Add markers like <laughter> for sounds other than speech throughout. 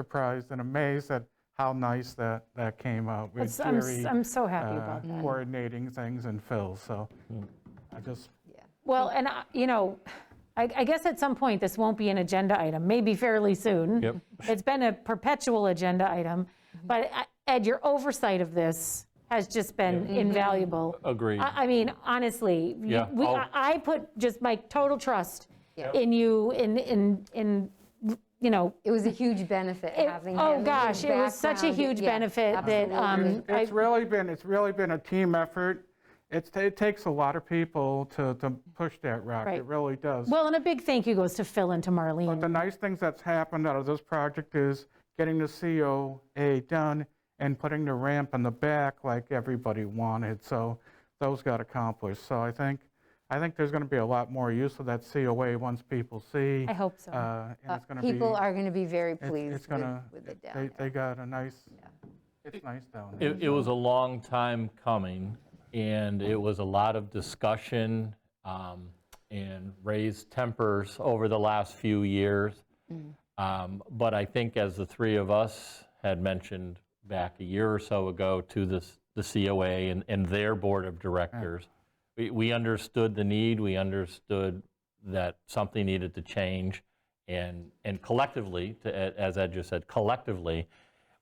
surprised and amazed at how nice that, that came out. with It's- I'm s- Jerry, I'm so happy uh, about that. Coordinating things and Phil, so I just, Well, and, I- you know, I I guess at some point, this won't be an agenda item, maybe fairly soon. Yep. It's been a perpetual agenda item, but uh, Ed, your oversight of this has just been invaluable. Agreed. I I mean, honestly, you- Yeah, we- I'll- I I put just my total trust Yeah. in you, in, in, in, you know, It was a huge benefit having him. oh his gosh, it was such a background. huge Yeah, benefit that, um, absolutely. I- it's really been, it's really been a team effort. It's, it takes a lot of people to, to push that rock, Right. it really does. well, and a big thank you goes to Phil and to But the Marlene. nice things that's happened out of this project is getting the COA done and putting the ramp in the back like everybody wanted, so those got accomplished. So I think, I think there's going to be a lot more use of that COA once people see. I hope so. uh, And it's going to be. People are going to be very it's- it's pleased with gonna- with it down they- there. They got a nice, it's nice down there. It, it was a long time coming, and it was a lot of discussion um, and raised tempers over the last few years. Um, But I think as the three of us had mentioned back a year or so ago to this, the COA and, and their board of directors, we, we understood the need, we understood that something needed to change. And, and collectively, to Ed- as Ed just said, collectively,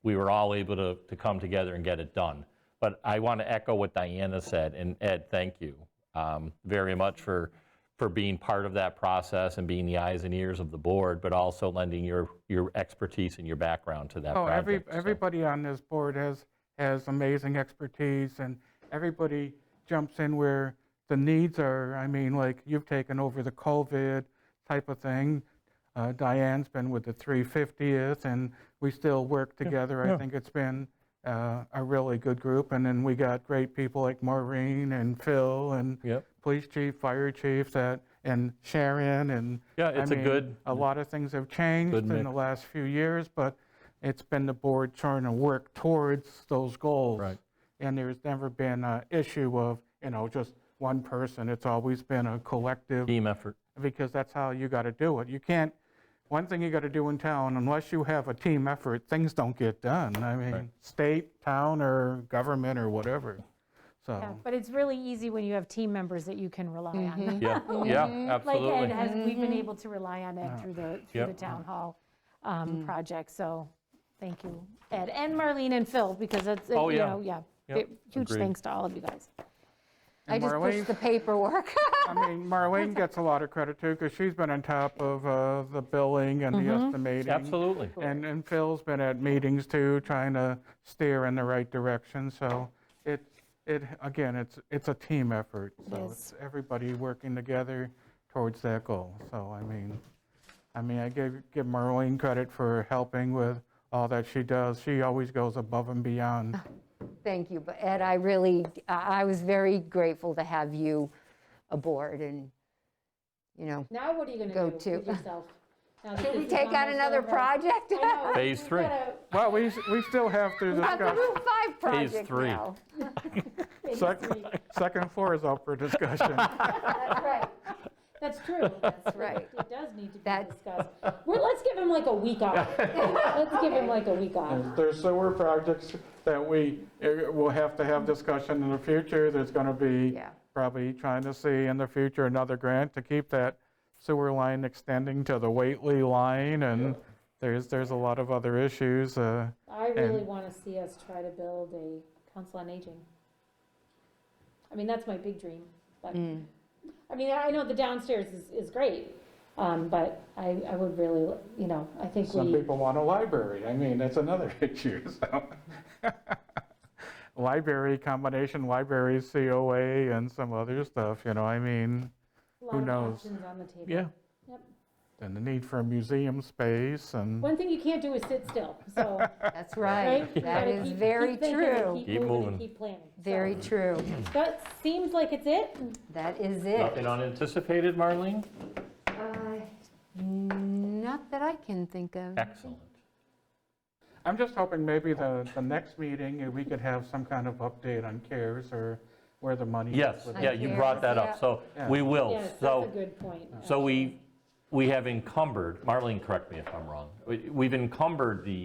we were all able to, to come together and get it done. But I want to echo what Diana said, and Ed, thank you um, very much for, for being part of that process and being the eyes and ears of the board, but also lending your, your expertise and your background to that Oh, every, project. so. everybody on this board has, has amazing expertise, and everybody jumps in where the needs are. I mean, like, you've taken over the COVID type of thing. Uh, Diane's been with the 350th, and we still work together. I think it's been uh, a really good group, and then we got great people like Maureen and Phil and Yep. police chief, fire chief, that, and Sharon, and. Yeah, I it's a mean, good- A lot of things have changed Good in the mix. last few years, but it's been the board trying to work towards those goals. Right. And there's never been an issue of, you know, just one person. It's always been a collective, Team effort. because that's how you got to do it. You can't, one thing you got to do in town, unless you have a team effort, things don't get done. I mean, state, town, or government, or whatever, Yeah, so. But it's really easy when you have team members that you can rely on. Yeah, yeah, like absolutely. Ed has, we've Mm-hmm. been able to rely on Ed through the, through the Yep. town hall um, Mm. project, so thank you, Ed, and Marlene and Phil, because it's, you Oh, yeah. know, yeah. Yep, Huge agreed. thanks to all of you guys. I And just Marlene? pushed the paperwork. I mean, Marlene gets a lot of credit too, because she's been on top of uh, the billing and the estimating. Absolutely. And, and Phil's been at meetings too, trying to steer in the right direction, so it, it, again, it's, it's a team effort. So it's everybody working together towards that goal, so I mean, I mean, I give, give Marlene credit for helping with all that she does. She always goes above and <laughs> beyond. <laughs> Thank you, but Ed, I really, I I was very grateful to have you aboard and, you know, Now what are you going Go do with to. <laughs> yourself? should we take on another project? <laughs> <laughs> Phase three. Well, we, s- we still have to Got the discuss, Route 5 project three. now. second, second floor is up for <laughs> discussion. That's right, That's <laughs> true. That's right. It does need to That- be discussed. Well, let's give him like a week off. <laughs> Let's give him like a week off. There's sewer projects that we eh, will have to have discussion in the future. There's going to be Yeah. probably trying to see in the future another grant to keep that sewer line extending to the Waitley line, and there's, there's a lot of other issues. uh, I really And- want to see us try to build a council on aging. I mean, that's my big dream, but, Mm. I mean, I know the downstairs is, is great, um, but I, I would really, you know, I think Some we, people want a library, I mean, that's another <laughs> issue, so. Library, combination library, COA, and some other stuff, you know, I mean, a lot who of knows? options on the table. Yeah, and the need for museum space and. One thing you can't do is sit <laughs> still, so, that's right. right? You That gotta is keep- keep very thinking and true, Keep Keep moving moving. and keep planning. So, very true. That seems like it's it. That is it. nothing unanticipated, Marlene? Uh, Not that I can think of. Excellent. I'm just hoping maybe the, the next meeting, uh, we could have some kind of update on CARES or where the money is. Yes, with it. yeah, you brought that Yeah. up, so we will, Yes, that's Oh, so. a good point. So we, we have encumbered, Marlene, correct me if I'm wrong, we- we've encumbered the